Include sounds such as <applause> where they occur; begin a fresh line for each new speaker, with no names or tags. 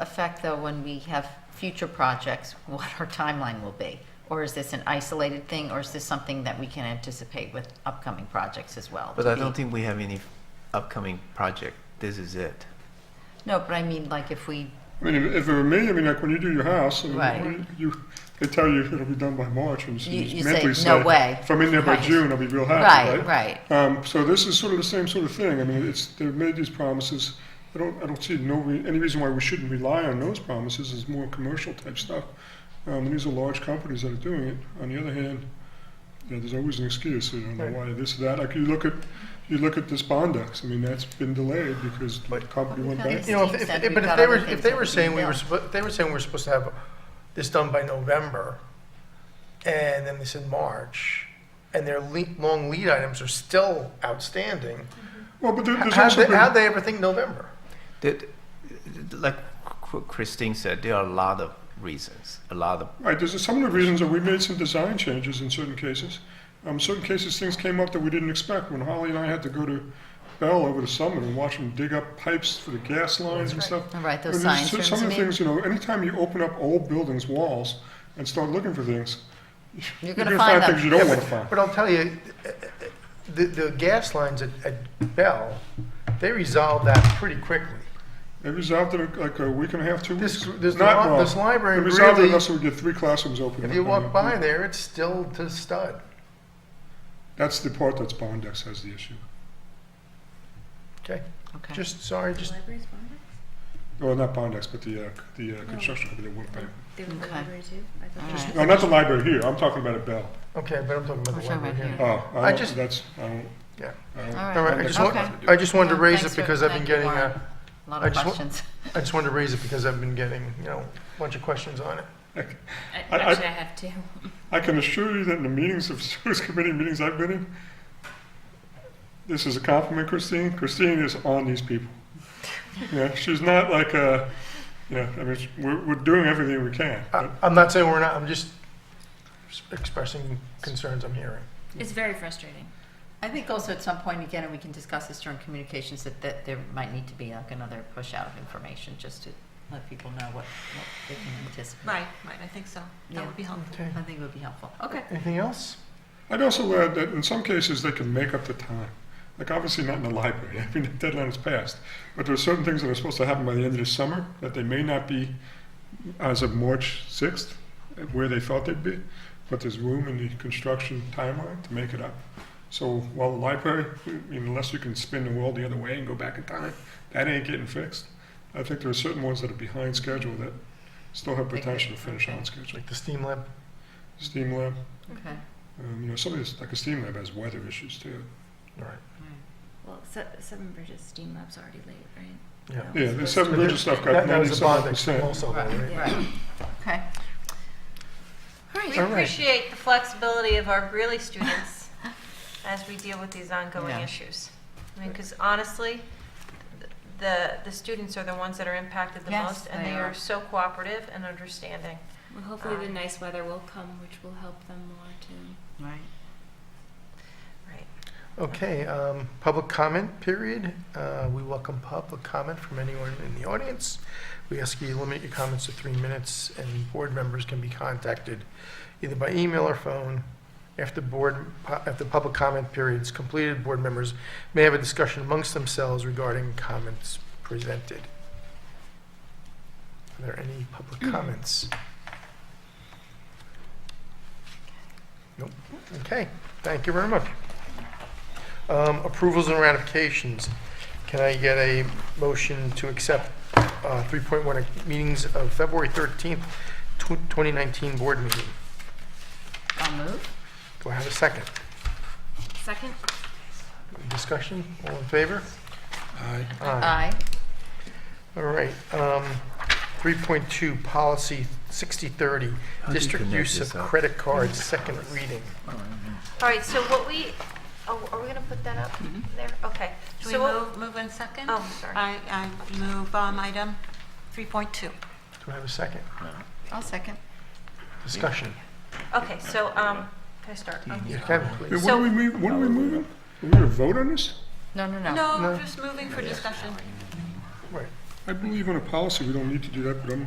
affect, though, when we have future projects, what our timeline will be? Or is this an isolated thing, or is this something that we can anticipate with upcoming projects as well?
But I don't think we have any upcoming project. This is it.
No, but I mean, like, if we,
I mean, if if it were me, I mean, like when you do your house, I mean,
Right.
when you, they tell you it'll be done by March, and so
You-
just
you say,
mentally
"No way."
If I'm in there by
Right.
June, I'll be real happy,
right,
right?
right.
Um, so this is sort of the same sort of thing. I mean, it's they've made these promises. I don't, I don't see no re- any reason why we shouldn't rely on those promises. It's more commercial type stuff. Um, and these are large companies that are doing it. On the other hand, you know, there's always an excuse. You don't know why this, that. Like you look at, you look at this Bondex. I mean, that's been delayed because the company went
Well, we
back.
can't-
You know, if,
Steve
if,
said
if-
we've
but if
got
they
other
were,
things
if
that
they
we
were
can
saying we were,
do.
suppo- if they were saying we're supposed to have this done by November, and then they said March, and their le long lead items are still outstanding,
Well, but there,
h-
there's
how'd
also
they,
been,
how'd they ever think November?
That, like Christine said, there are a lot of reasons, a lot of
Right, there's some of the reasons that we made some design changes in certain cases. Um, certain cases, things came up that we didn't expect. When Holly and I had to go to Bell over the summer and watch them dig up pipes for the gas lines and stuff.
All right, those
I mean, there's
signs,
so-
for
Some of the
instance,
things, you know, anytime you open up old buildings' walls and start looking for things,
you're
you're
going to
gonna
find
find
them.
things you don't
Yeah,
wanna
but-
find.
But I'll tell you, uh, uh, the, the gas lines at, at Bell, they resolved that pretty quickly.
They resolved it in, like a week and a half, two
This-
weeks.
this
Not
li-
wrong.
this library
They resolved it
really-
enough so we get three classrooms open.
If you
I mean,
walk by there, it's still to stud.
That's the part that's Bondex has the issue.
Okay,
Okay.
just, sorry, just,
Libraries, Bondex?
Well, not Bondex, but the, uh, the uh, construction company that worked there.
They were in the
Okay.
library too? I thought they
Just-
were-
No, not the library here, I'm talking about at Bell.
okay, but I'm talking about
We're
the
talking
library
about
here.
here.
Oh,
I
I
just-
don't, that's, I don't.
Yeah.
I don't-
All
All right, I
right.
just,
Okay.
want, I just wanted to
Well,
raise
thanks
it
for-
because I've been
thank you,
getting,
Warren.
uh,
A lot
I
of
just wa-
questions.
I just wanted to raise it because I've been getting, you know, a bunch of questions on it.
I-
I- I-
Actually, I have <laughs> two.
I can assure you that in the meetings of <laughs> service committee meetings I've been in, this is a compliment, Christine. Christine is on these people. Yeah, she's not like a, you know, I mean, sh- we're, we're doing everything we can.
I,
but-
I'm not saying we're not, I'm just s- expressing concerns I'm hearing.
It's very frustrating.
I think also at some point, again, and we can discuss this during communications, that, that there might need to be like another push out of information, just to let people know what, what they can anticipate.
Right, right, I think so.
Yeah.
That would be helpful.
Okay.
I think it would be helpful.
Okay.
Anything else?
I'd also add that in some cases, they can make up the time. Like, obviously not in the library, <laughs> I mean, the deadline is passed. But there are certain things that are supposed to happen by the end of the summer that they may not be as of March 6th, uh, where they thought they'd be, but there's room in the construction timeline to make it up. So while the library, I mean, unless you can spin the world the other way and go back in time, that ain't getting fixed. I think there are certain ones that are behind schedule that still have
They could-
potential to finish
okay.
on schedule.
Like the steam lab?
Steam Lab,
Okay.
um, you know, some of these, like a steam lab has weather issues too.
All right.
Well, Se- Seven Bridges Steam Lab's already late, right?
Yeah.
Yeah, the Seven
But
Bridges
that-
stuff got
That that was a bond
ninety-seven
that
percent.
also,
Right,
right?
right. Okay.
We
All right.
appreciate the flexibility of our Greeley students as we deal with these ongoing
Yeah.
issues. I mean, because honestly, th- the, the students are the ones that are impacted the
Yes,
most, and
they
they
are.
are so cooperative and understanding.
Well, hopefully the
Um,
nice weather will come, which will help them more too.
Right.
Right.
Okay, um, public comment period. Uh, we welcome public comment from anyone in the audience. We ask you to limit your comments to three minutes, and board members can be contacted either by email or phone. After board, after public comment period is completed, board members may have a discussion amongst themselves regarding comments presented. Are there any public comments? Nope. Okay, thank you very much. Um, Approvals and ratifications. Can I get a motion to accept uh, 3.1 meetings of February 13th, tw- 2019 board meeting?
I'll move.
Do I have a second?
Second?
Discussion? All in favor?
Aye.
Aye.
All right. um, 3.2, policy 6030,
How do you
district
connect
use of
this up?
credit cards, second reading.
All right, so what we, oh, are we going to put that up there? Okay.
Should we
So what-
move, move in second?
Oh, sorry.
I, I move um, item 3.2.
Do I have a second?
I'll second.
Discussion?
Okay, so, um, can I start? Um,
You can,
Hey,
please.
What are we mov- what are we moving? Are we gonna vote on this?
No, no, no.
No,
No.
just moving for discussion.
Right.
I believe in a policy, we don't need to do that, but I'm